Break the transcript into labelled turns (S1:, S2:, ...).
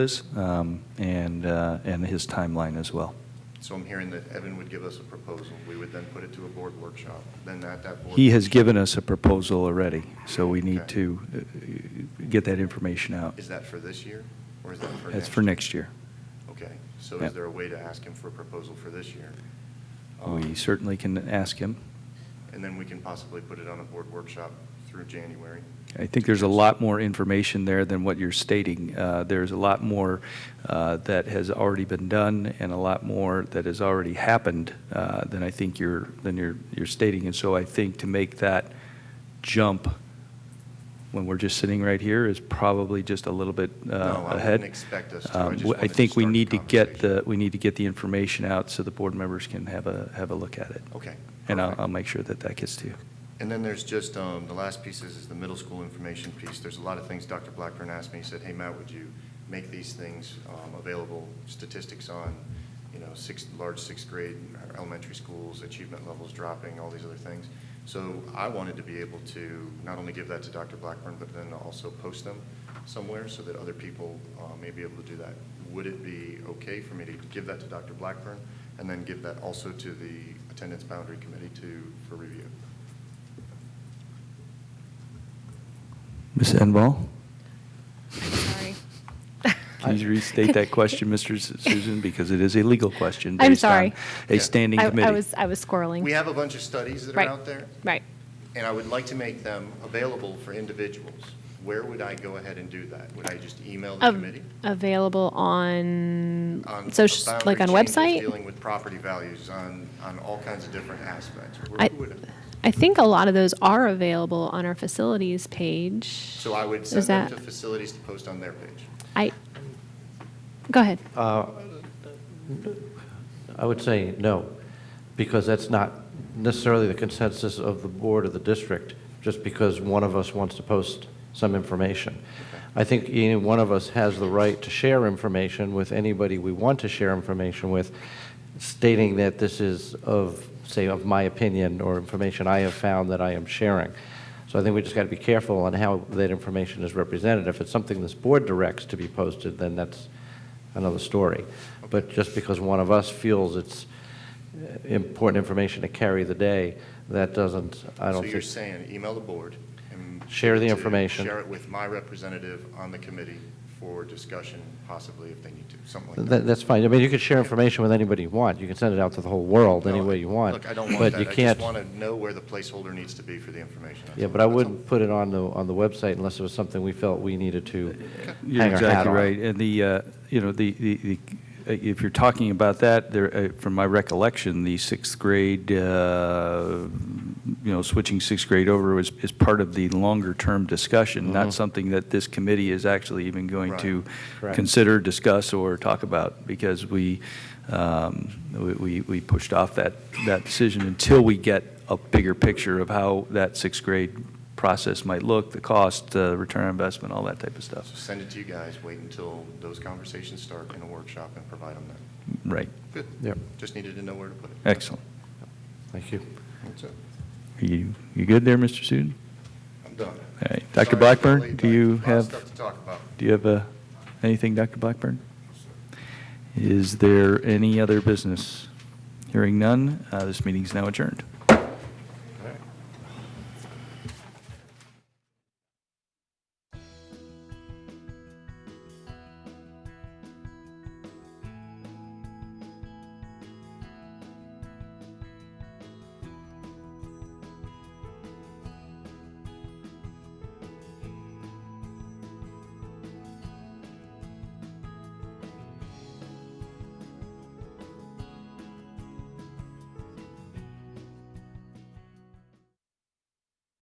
S1: is, um, and, uh, and his timeline as well.
S2: So I'm hearing that Evan would give us a proposal, we would then put it to a board workshop, then at that board.
S1: He has given us a proposal already, so we need
S2: Okay.
S1: to uh, get that information out.
S2: Is that for this year, or is that for next?
S1: That's for next year.
S2: Okay, so
S1: Yeah.
S2: is there a way to ask him for a proposal for this year?
S1: We
S2: Um,
S1: certainly can ask him.
S2: And then we can possibly put it on a board workshop through January.
S1: I think there's a lot more information there than what you're stating. Uh, There's a lot more uh, that has already been done and a lot more that has already happened uh, than I think you're, than you're, you're stating. And so I think to make that jump when we're just sitting right here is probably just a little bit uh,
S2: No, I wouldn't
S1: ahead.
S2: expect us to. I
S1: Um, w-
S2: just
S1: I
S2: wanted to
S1: think we
S2: start the
S1: need to get the,
S2: conversation.
S1: we need to get the information out so the board members can have a, have a look at it.
S2: Okay,
S1: And I'll,
S2: perfect.
S1: I'll make sure that that gets to you.
S2: And then there's just, um, the last piece is, is the middle school information piece. There's a lot of things Dr. Blackburn asked me, he said, hey, Matt, would you make these things, um, available, statistics on, you know, sixth, large sixth grade, or elementary schools, achievement levels dropping, all these other things. So I wanted to be able to not only give that to Dr. Blackburn, but then also post them somewhere so that other people, uh, may be able to do that. Would it be okay for me to give that to Dr. Blackburn and then give that also to the attendance boundary committee to, for review?
S1: Ms. Enval?
S3: Sorry.
S1: Can you restate that question, Mr. Su- Susan, because it is a legal question.
S3: I'm
S1: based on
S3: sorry.
S1: A standing
S3: I-
S1: committee.
S3: I was, I was squirreling.
S2: We have a bunch of studies that are
S3: Right.
S2: out there,
S3: Right.
S2: and I would like to make them available for individuals. Where would I go ahead and do that? Would I just email the
S3: Av-
S2: committee?
S3: Available on
S2: On
S3: social,
S2: boundary
S3: like on
S2: changes,
S3: website?
S2: Dealing with property values on, on all kinds of different aspects. Where
S3: I-
S2: would-
S3: I think a lot of those are available on our facilities page.
S2: So I would send
S3: Is
S2: them
S3: that,
S2: to facilities to post on their page.
S3: I, go ahead.
S4: Uh, I would say no, because that's not necessarily the consensus of the board of the district, just because one of us wants to post some information. I think any one of us has the right to share information with anybody we want to share information with, stating that this is of, say, of my opinion or information I have found that I am sharing. So I think we just got to be careful on how that information is represented. If it's something this board directs to be posted, then that's another story. But just because one of us feels it's uh, important information to carry the day, that doesn't, I don't
S2: So you're
S4: think,
S2: saying, email the board and.
S4: Share the
S2: to
S4: information.
S2: Share it with my representative on the committee for discussion, possibly if they need to, something like that.
S4: That- that's fine. I mean, you could share information with anybody you want. You can send it out to the whole world any
S2: No,
S4: way you want.
S2: Look, I don't want
S4: but
S2: that.
S4: you
S2: I just
S4: can't-
S2: want to know where the placeholder needs to be for the information. That's
S4: Yeah,
S2: all.
S4: but I
S2: That's all.
S4: wouldn't put it on the, on the website unless it was something we felt we needed to
S1: You're
S4: hang our hat
S1: exactly
S4: on.
S1: right. And the, uh, you know, the, the, the- if you're talking about that, there, uh, from my recollection, the sixth grade, uh, you know, switching sixth grade over is, is part of the longer-term discussion,
S4: Mm-hmm.
S1: not something that this committee is actually even going
S2: Right.
S1: to
S4: Correct.
S1: consider, discuss, or talk about, because we, um, we- we, we pushed off that, that decision until we get a bigger picture of how that sixth grade process might look, the cost, uh, return on investment, all that type of stuff.
S2: So send it to you guys, wait until those conversations start in a workshop and provide them that.
S1: Right.
S2: Good.
S4: Yep.
S2: Just needed to know where to put it.
S1: Excellent.
S4: Thank you.
S2: That's it.
S1: Are you, you good there, Mr. Sudan?
S2: I'm done.
S1: All right.
S2: Sorry,
S1: Dr.
S2: I
S1: Blackburn,
S2: was
S1: do
S2: late.
S1: you
S2: Lot of
S1: have,
S2: Stuff to talk about.
S1: do you have uh, anything, Dr. Blackburn? Is there any other business? Hearing none, uh, this meeting is now adjourned.